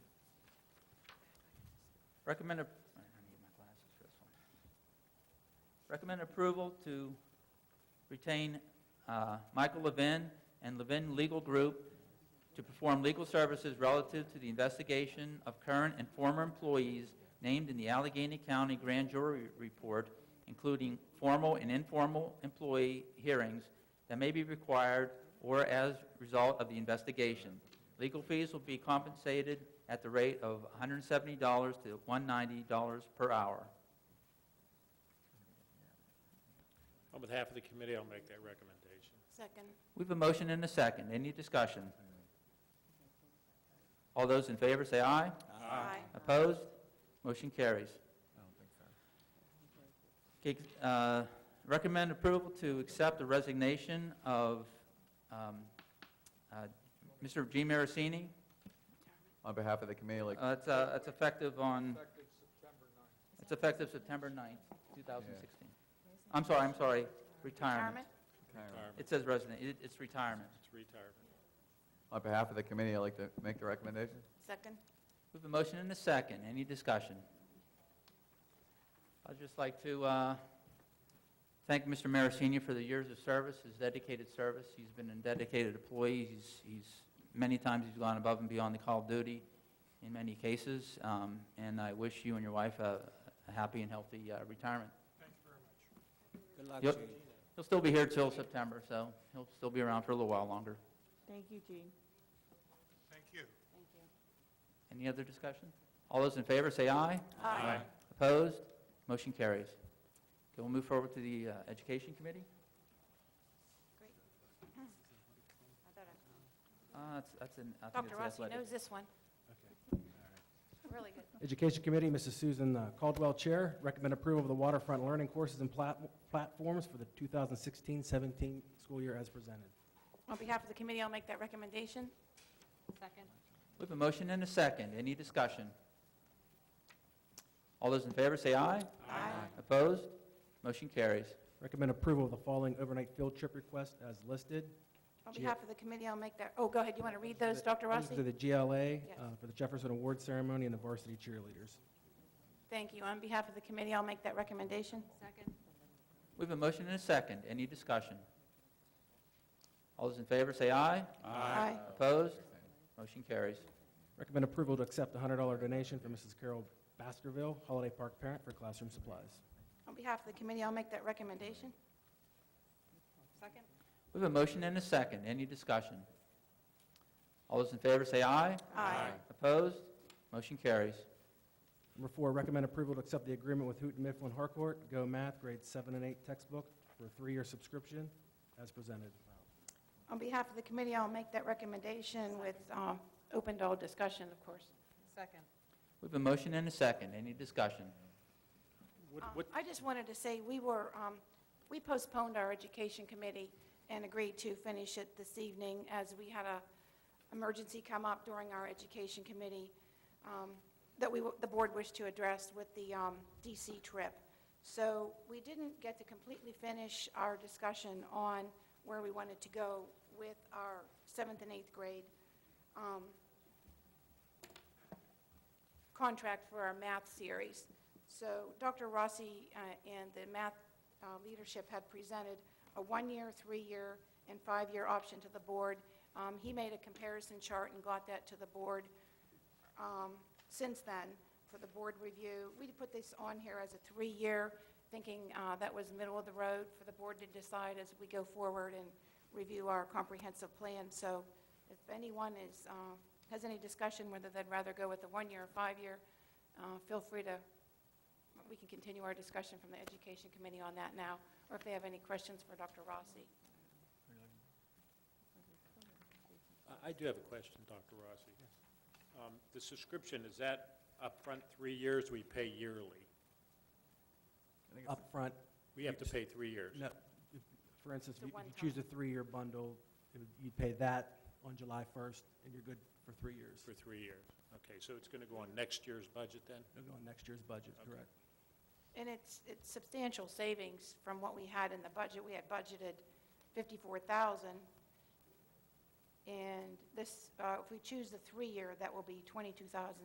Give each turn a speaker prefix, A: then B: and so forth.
A: Recommend, a- I need my glasses for this one. Recommend approval to retain uh, Michael Levin and Levin Legal Group to perform legal services relative to the investigation of current and former employees named in the Allegheny County Grand Jury Report, including formal and informal employee hearings that may be required or as a result of the investigation. Legal fees will be compensated at the rate of $170 to $190 per hour.
B: On behalf of the committee, I'll make that recommendation.
C: Second.
A: We have a motion and a second. Any discussion? All those in favor say aye.
C: Aye.
A: Opposed? Motion carries.
D: I don't think so.
A: Okay, uh, Recommend approval to accept the resignation of um, uh, Mr. G. Marasini.
D: On behalf of the committee, like,
A: Uh, It's uh, it's effective on... It's effective September 9th, 2016. I'm sorry, I'm sorry, retirement.
C: Retirement?
D: retirement.
B: Retirement.
A: It says resident, It- it's retirement.
B: It's retirement.
D: on behalf of the committee, I'd like to make the recommendation.
C: Second.
A: We have a motion and a second. Any discussion? I'd just like to uh, thank Mr. Marasini for the years of service, his dedicated service. He's been a dedicated employee. He's, he's, many times he's gone above and beyond the call of duty in many cases. Um, And I wish you and your wife a a happy and healthy uh, retirement.
E: Good luck,
A: Yep.
E: Gene.
A: He'll still be here till September, so he'll still be around for a little while longer.
C: Thank you, Jean.
F: Thank you.
C: Thank you.
A: Any other discussion? All those in favor, say aye.
C: Aye.
A: Opposed? Motion carries. Okay, we'll move forward to the uh, Education Committee.
C: I thought I-
A: Uh, that's- That's an, I think
C: Dr.
A: it's the
C: Rossi
A: athletic.
C: knows this one. Really good.
G: Education Committee, Mrs. Susan uh, Caldwell Chair, recommend approval of the waterfront learning courses and plat- platforms for the 2016-17 school year as presented.
C: On behalf of the committee, I'll make that recommendation. Second.
A: We have a motion and a second. Any discussion? All those in favor, say aye.
C: Aye.
A: Opposed? Motion carries.
G: Recommend approval of the following overnight field trip request as listed.
C: On
G: Gee.
C: behalf of the committee, I'll make that, oh, go ahead, you want to read those, Dr.
G: These are
C: Rossi?
G: the GLA uh, for the Jefferson Award Ceremony and the varsity cheerleaders.
C: Thank you. On behalf of the committee, I'll make that recommendation. Second.
A: We have a motion and a second. Any discussion? All those in favor, say aye.
C: Aye.
A: Opposed? Motion carries.
G: Recommend approval to accept a $100 donation from Mrs. Carol Baskerville, Holiday Park parent, for classroom supplies.
C: On behalf of the committee, I'll make that recommendation. Second.
A: We have a motion and a second. Any discussion? All those in favor, say aye.
C: Aye.
A: Opposed? Motion carries.
G: Number four, recommend approval to accept the agreement with Houghton Mifflin Harcourt, Go Math, grades seven and eight textbook for a three-year subscription as presented.
C: On behalf of the committee, I'll make that recommendation with uh, open to all discussion, of course.
H: Second.
A: We have a motion and a second. Any discussion?
B: What,
C: Um,
B: what,
C: I just wanted to say, we were, um, we postponed our education committee and agreed to finish it this evening as we had a emergency come up during our education committee um, that we, w- the board wished to address with the um, DC trip. So we didn't get to completely finish our discussion on where we wanted to go with our seventh and eighth grade um, contract for our math series. So Dr. Rossi uh, and the math uh, leadership had presented a one-year, three-year, and five-year option to the board. Um, He made a comparison chart and got that to the board um, since then for the board review. We put this on here as a three-year, thinking uh, that was middle of the road for the board to decide as we go forward and review our comprehensive plan. So if anyone is, uh, has any discussion whether they'd rather go with the one-year or five-year, uh, feel free to, we can continue our discussion from the Education Committee on that now, or if they have any questions for Dr. Rossi.
B: I- I do have a question, Dr. Rossi. Um, The subscription, is that upfront three years, we pay yearly?
D: I think it's-
G: Upfront,
B: We have to pay three years?
G: no, if- for instance,
C: It's a
G: if you if you
C: one-time.
G: choose a three-year bundle, it would- you'd pay that on July 1st, and you're good for three years.
B: For three years? Okay, so it's going to go on next year's budget then?
G: It'll go on next year's budget,
B: Okay.
G: correct?
C: And it's, it's substantial savings from what we had in the budget. We had budgeted 54,000. And this, uh, if we choose the three-year, that will be 22,000